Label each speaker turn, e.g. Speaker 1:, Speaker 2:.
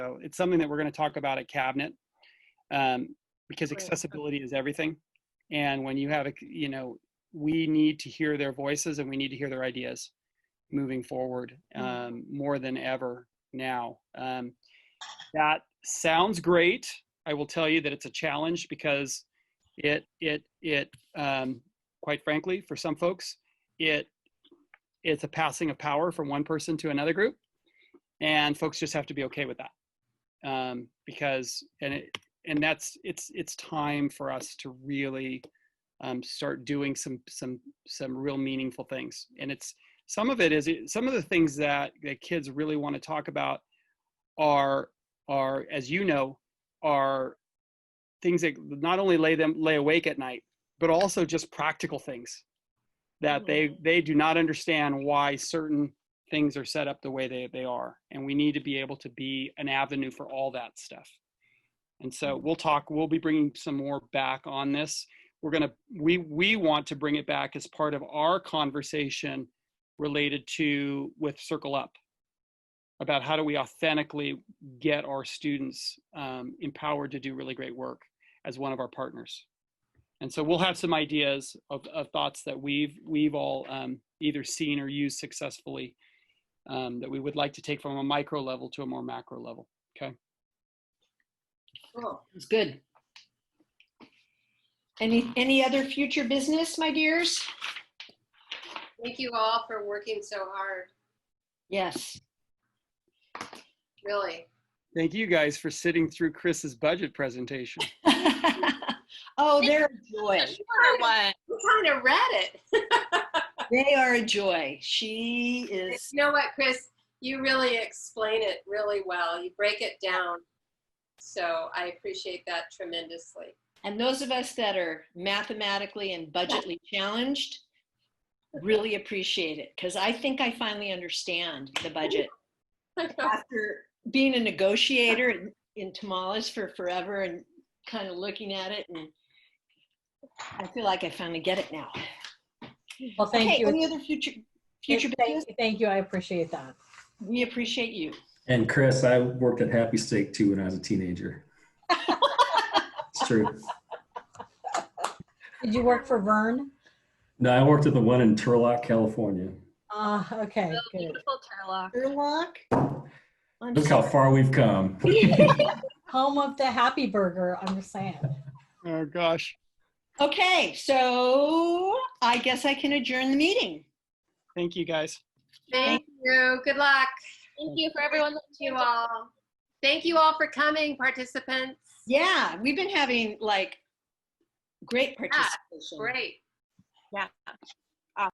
Speaker 1: So it's something that we're going to talk about at cabinet um, because
Speaker 2: Right.
Speaker 1: accessibility is everything. And when you have, a- you know, we need to hear their voices and we need to hear their ideas moving forward
Speaker 2: Mhm.
Speaker 1: um, more than ever now. Um, that sounds great. I will tell you that it's a challenge because it it it um, quite frankly for some folks it it's a passing of power from one person to another group, and folks just have to be okay with that um, because and it and that's it's it's time for us to really um, start doing some some some real meaningful things and it's some of it is some of the things that that kids really want to talk about are are as you know are things that not only lay them lay awake at night but also just practical things that they
Speaker 2: Mhm.
Speaker 1: they do not understand why certain things are set up the way they, they are and we need to be able to be an avenue for all that stuff and so we'll talk we'll be bringing some more back on this we're going to we we want to bring it back as part of our conversation related to with circle up about how do we authentically get our students um, empowered to do really great work as one of our partners and so we'll have some ideas of, of thoughts that we've we've all um, either seen or used successfully um, that we would like to take from a micro level to a more macro level
Speaker 2: Cool. It's good. Any, any other future business, my dears?
Speaker 3: Thank you all for working so hard,
Speaker 2: Yes.
Speaker 3: really.
Speaker 1: thank you guys for sitting through chris's budget presentation
Speaker 2: Oh, they're a joy.
Speaker 4: Shorter one.
Speaker 3: We kind of read it.
Speaker 2: They are a joy. She is,
Speaker 3: You know what, Chris? You really explain it really well. You break it down. So I appreciate that tremendously.
Speaker 2: and those of us that are mathematically and budgetly challenged really appreciate it because I think I finally understand the budget. after being a negotiator in, in tamales for forever and kind of looking at it and I feel like I finally get it now.
Speaker 5: Well, thank
Speaker 2: okay,
Speaker 5: you.
Speaker 2: any other future future business?
Speaker 5: Thank you- Thank you, I appreciate that.
Speaker 2: We appreciate you.
Speaker 6: And Chris, I worked at Happy Steak too when I was a teenager. it's true.
Speaker 5: Did you work for Vern?
Speaker 6: No, I worked at the one in Turlock, California.
Speaker 5: Uh, okay, good.
Speaker 4: Beautiful Turlock.
Speaker 2: Erlock. I'm
Speaker 6: Look how
Speaker 2: sorry.
Speaker 6: far we've come.
Speaker 5: Home of the Happy Burger, I'm just saying.
Speaker 1: oh gosh
Speaker 2: Okay, so I guess I can adjourn the meeting.
Speaker 1: thank you guys
Speaker 3: Thank you. Good luck
Speaker 4: Thank you for everyone that
Speaker 3: to you all. Thank you all for coming, participants.
Speaker 2: Yeah, we've been having like great participation.
Speaker 3: Great.